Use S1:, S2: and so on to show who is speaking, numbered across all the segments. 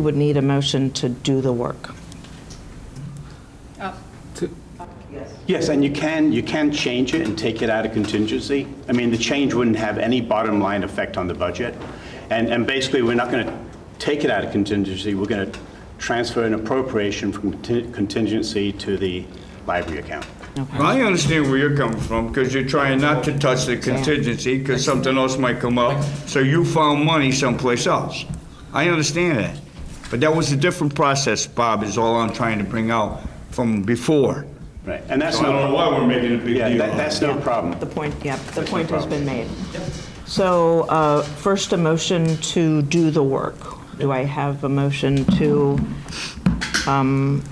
S1: would need a motion to do the work.
S2: Yes, and you can, you can change it and take it out of contingency. I mean, the change wouldn't have any bottom line effect on the budget. And, and basically, we're not going to take it out of contingency, we're going to transfer an appropriation from conti- contingency to the library account.
S3: I understand where you're coming from, because you're trying not to touch the contingency, because something else might come up, so you found money someplace else. I understand that. But that was a different process, Bob, is all I'm trying to bring out from before.
S2: Right, and that's
S3: So I
S2: no...
S3: don't know why we're making a big
S2: Yeah,
S3: deal
S2: that-
S3: out of
S2: that's no problem.
S1: The point, yep, the
S2: That's no
S1: point has been
S2: problem.
S1: made. So uh, first, a motion to do the work. Do I have a motion to um,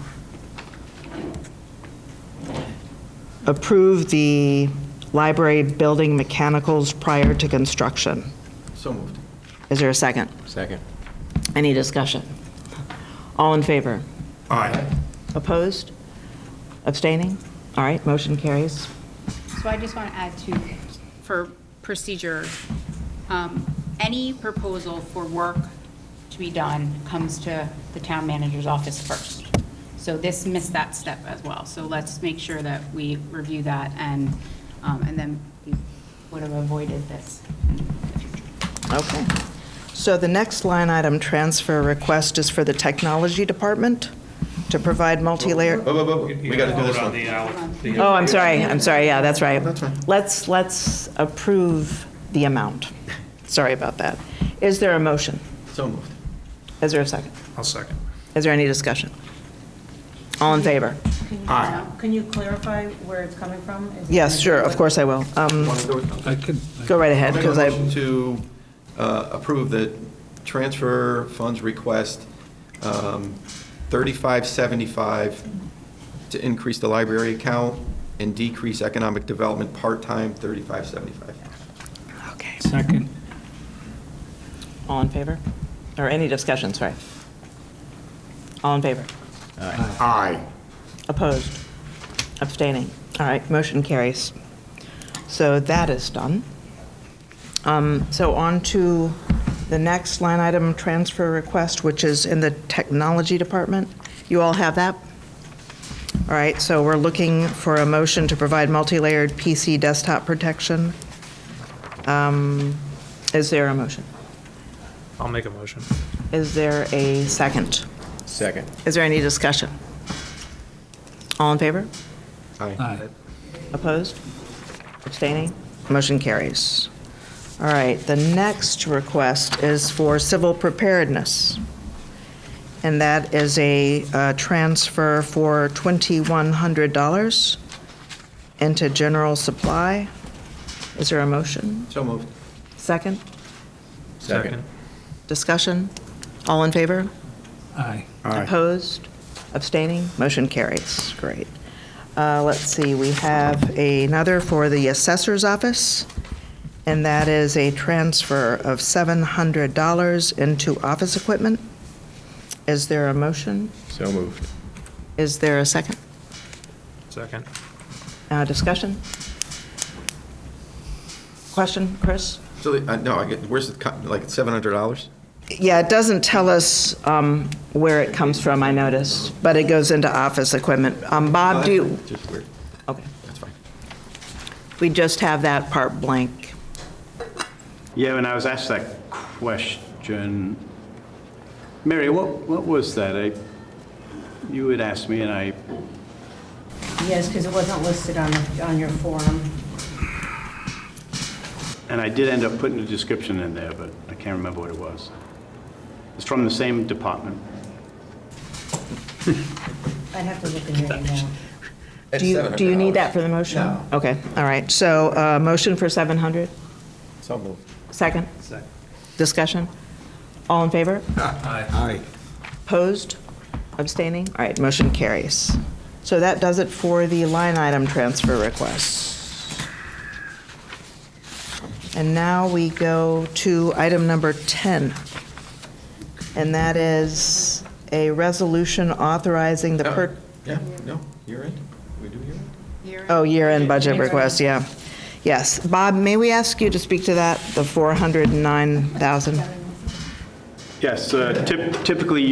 S1: approve the library building mechanicals prior to construction?
S4: So moved.
S1: Is there a second?
S4: Second.
S1: Any discussion? All in favor?
S3: All right.
S1: Opposed? Abstaining? All right, motion carries.
S5: So I just want to add to, for procedure, um, any proposal for work to be done comes to the town manager's office first. So this missed that step as well. So let's make sure that we review that and, um, and then we would have avoided this in the future.
S1: Okay. So the next line item transfer request is for the technology department to provide multi-layer,
S4: We gotta do this one.
S1: oh, I'm sorry, I'm sorry, yeah, that's right. Let's, let's approve the amount. Sorry about that. Is there a motion?
S4: So moved.
S1: Is there a second?
S6: I'll second.
S1: Is there any discussion? All in favor?
S7: Can you- Can you clarify where it's coming from? Is it-
S1: Yes, sure, of course I will. Um,
S6: I could,
S1: Go right ahead, because I,
S4: I'll make a motion To uh, approve the transfer funds request, um, 3575, to increase the library account and decrease economic development part-time, 3575.
S1: okay.
S6: second.
S1: All in favor? Or any discussion, sorry? All in favor?
S3: Aye.
S1: Opposed? Abstaining? All right, motion carries. So that is done. Um, So on to the next line item transfer request, which is in the technology department. You all have that? All right, so we're looking for a motion to provide multi-layered PC desktop protection. Um, Is there a motion?
S6: I'll make a motion.
S1: Is there a second?
S4: Second.
S1: Is there any discussion? All in favor?
S4: Aye.
S6: Aye.
S1: Opposed? Abstaining? Motion carries. All right, the next request is for civil preparedness, and that is a uh, transfer for $2,100 into general supply. Is there a motion?
S4: So moved.
S1: Second?
S6: Second.
S1: Discussion? All in favor?
S6: Aye.
S1: Opposed? Abstaining? Motion carries. Great. Uh, Let's see, we have another for the assessor's office, and that is a transfer of $700 into office equipment. Is there a motion?
S4: So moved.
S1: Is there a second?
S6: Second.
S1: Uh, Discussion? Question, Chris?
S4: So, the- uh, no, I get, where's the, co- like, $700?
S1: Yeah, it doesn't tell us um, where it comes from, I noticed, but it goes into office equipment. Um, Bob, do you?
S4: Just weird.
S1: Okay.
S4: That's fine.
S1: We just have that part blank.
S2: Yeah, when I was asked that question, Mary, what, what was that? I- You had asked me, and I,
S7: Yes, because it wasn't listed on, the- on your form.
S2: and I did end up putting a description in there, but I can't remember what it was. It's from the same department.
S7: I'd have to look in your email.
S4: It's
S1: Do you, do you need that for the motion?
S4: No.
S1: Okay, all right. So, uh, motion for 700,
S4: $700. So moved.
S1: second,
S6: Second.
S1: discussion? All in favor?
S6: Aye.
S1: Opposed? Abstaining? All right, motion carries. So that does it for the line item transfer requests. And now we go to item number 10. And that is a resolution authorizing
S6: Oh.
S1: the per.
S4: Yeah, no, you're in. We do year end?
S1: Oh, year-end budget request, yeah. Yes. Bob, may we ask you to speak to that, the 409,000?
S2: Yes, uh, typ- typically